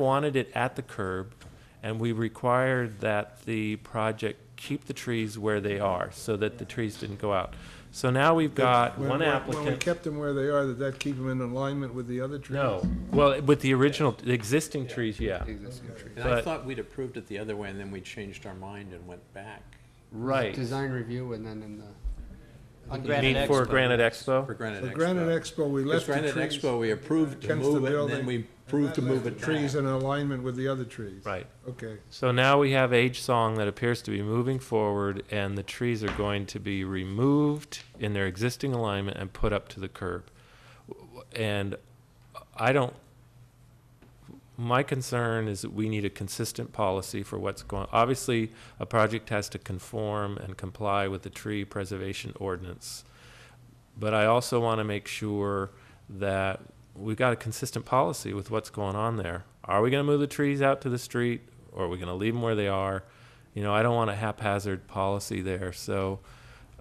wanted it at the curb, and we required that the project keep the trees where they are, so that the trees didn't go out. So now we've got When- one when- When we applicant. kept them where they are, did that keep them in alignment with the other trees? No, well, with the original, the existing trees, yeah, And I But- thought we'd approved it the other way, and then we changed our mind and went back right. Design review and then in the. on You mean Granite for Expo. Granite for Expo? Granite For Expo. Granite Expo, we Because left the trees. Granite Expo, we approved to against the move it, and then building, we and approved that to move left it the Trees back. in alignment with the other trees. Right. Okay. So now we have Age Song that appears to be moving forward, and the trees are going to be removed in their existing alignment and put up to the curb. And I don't, my concern is that we need a consistent policy for what's going, obviously, a project has to conform and comply with the tree preservation ordinance. But I also want to make sure that we've got a consistent policy with what's going on there. Are we going to move the trees out to the street, or are we going to leave them where they are? You know, I don't want a haphazard policy there, so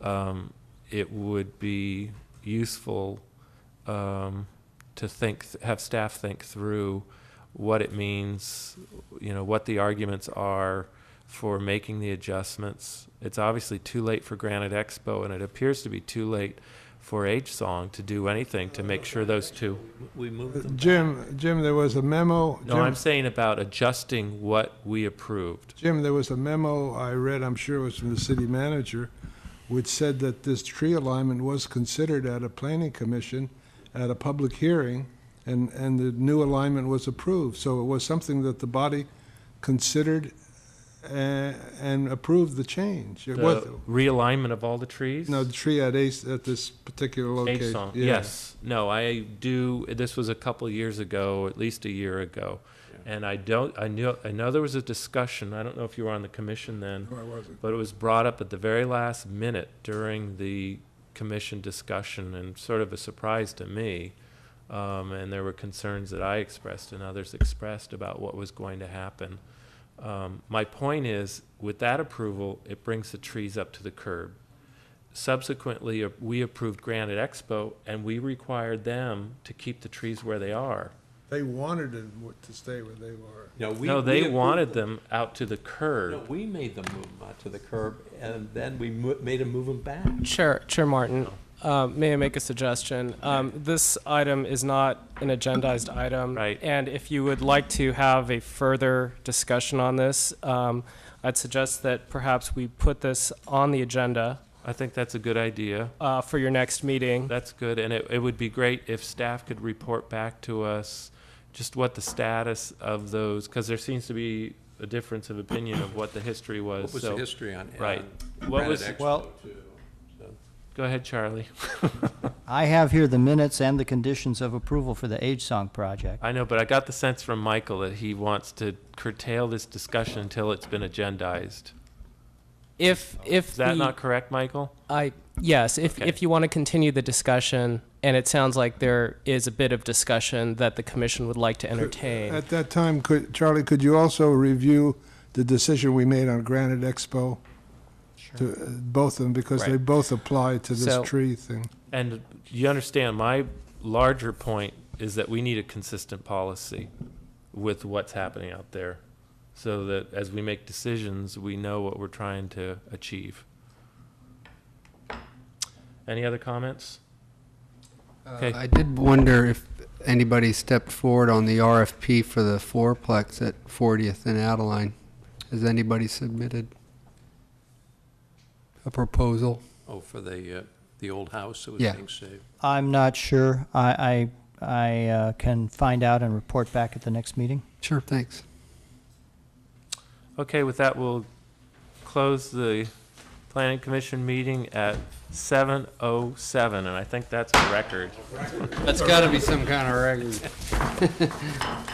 um, it would be useful um, to think, have staff think through what it means, you know, what the arguments are for making the adjustments. It's obviously too late for Granite Expo, and it appears to be too late for Age Song to do anything to make sure those two. We moved them. Jim, Jim, there was a memo. No, I'm saying about adjusting what we approved. Jim, there was a memo I read, I'm sure it was from the city manager, which said that this tree alignment was considered at a planning commission at a public hearing, and, and the new alignment was approved. So it was something that the body considered uh, and approved the change. It was, The realignment of all the trees? no, the tree at Ace, at this particular location. Age song. Yeah. Yes. No, I do. This was a couple years ago, at least a year ago, and I don't. I knew. I know there was a discussion. I don't know if you were on the commission then, No, I wasn't. but it was brought up at the very last minute during the commission discussion, and sort of a surprise to me. Um, and there were concerns that I expressed and others expressed about what was going to happen. Um, my point is, with that approval, it brings the trees up to the curb subsequently, uh, we approved Granite Expo, and we required them to keep the trees where they are. They wanted it w- to stay where they were. No, we- No, we they approved wanted them. them out to the No, curb. we made them move them out to the curb, and then we mo- made them move them back. Chair, Chair Martin, uh, may I make a suggestion? Um, This item is not an agendized item. Right. And if you would like to have a further discussion on this, um, I'd suggest that perhaps we put this on the agenda I think that's a good idea. uh, for your next meeting. That's good, and it, it would be great if staff could report back to us just what the status of those, because there seems to be a difference of opinion of what the history was. What was so- the history on, right. on What was- Granite Expo, Well- too? So- Go ahead, Charlie. I have here the minutes and the conditions of approval for the Age Song project. I know, but I got the sense from Michael that he wants to curtail this discussion until it's been agendized. If, if Is that the- not correct, Michael? I, yes, if, Okay. if you want to continue the discussion, and it sounds like there is a bit of discussion that the commission would like to entertain. At that time, could, Charlie, could you also review the decision we made on Granite Expo? To, uh, both of them, because they Right. both apply to this So- tree thing. And you understand, my larger point is that we need a consistent policy with what's happening out there so that as we make decisions, we know what we're trying to achieve. Any other comments? Okay. Uh, I did wonder if anybody stepped forward on the RFP for the fourplex at 40th and Adeline. Has anybody submitted a proposal? Oh, for the, uh, the old house that was Yeah. being saved. I'm not sure. I, I, I uh, can find out and report back at the next meeting. Sure, thanks. Okay, with that, we'll close the planning commission meeting at 7:07, and I think that's a record. That's got to be some kind of record.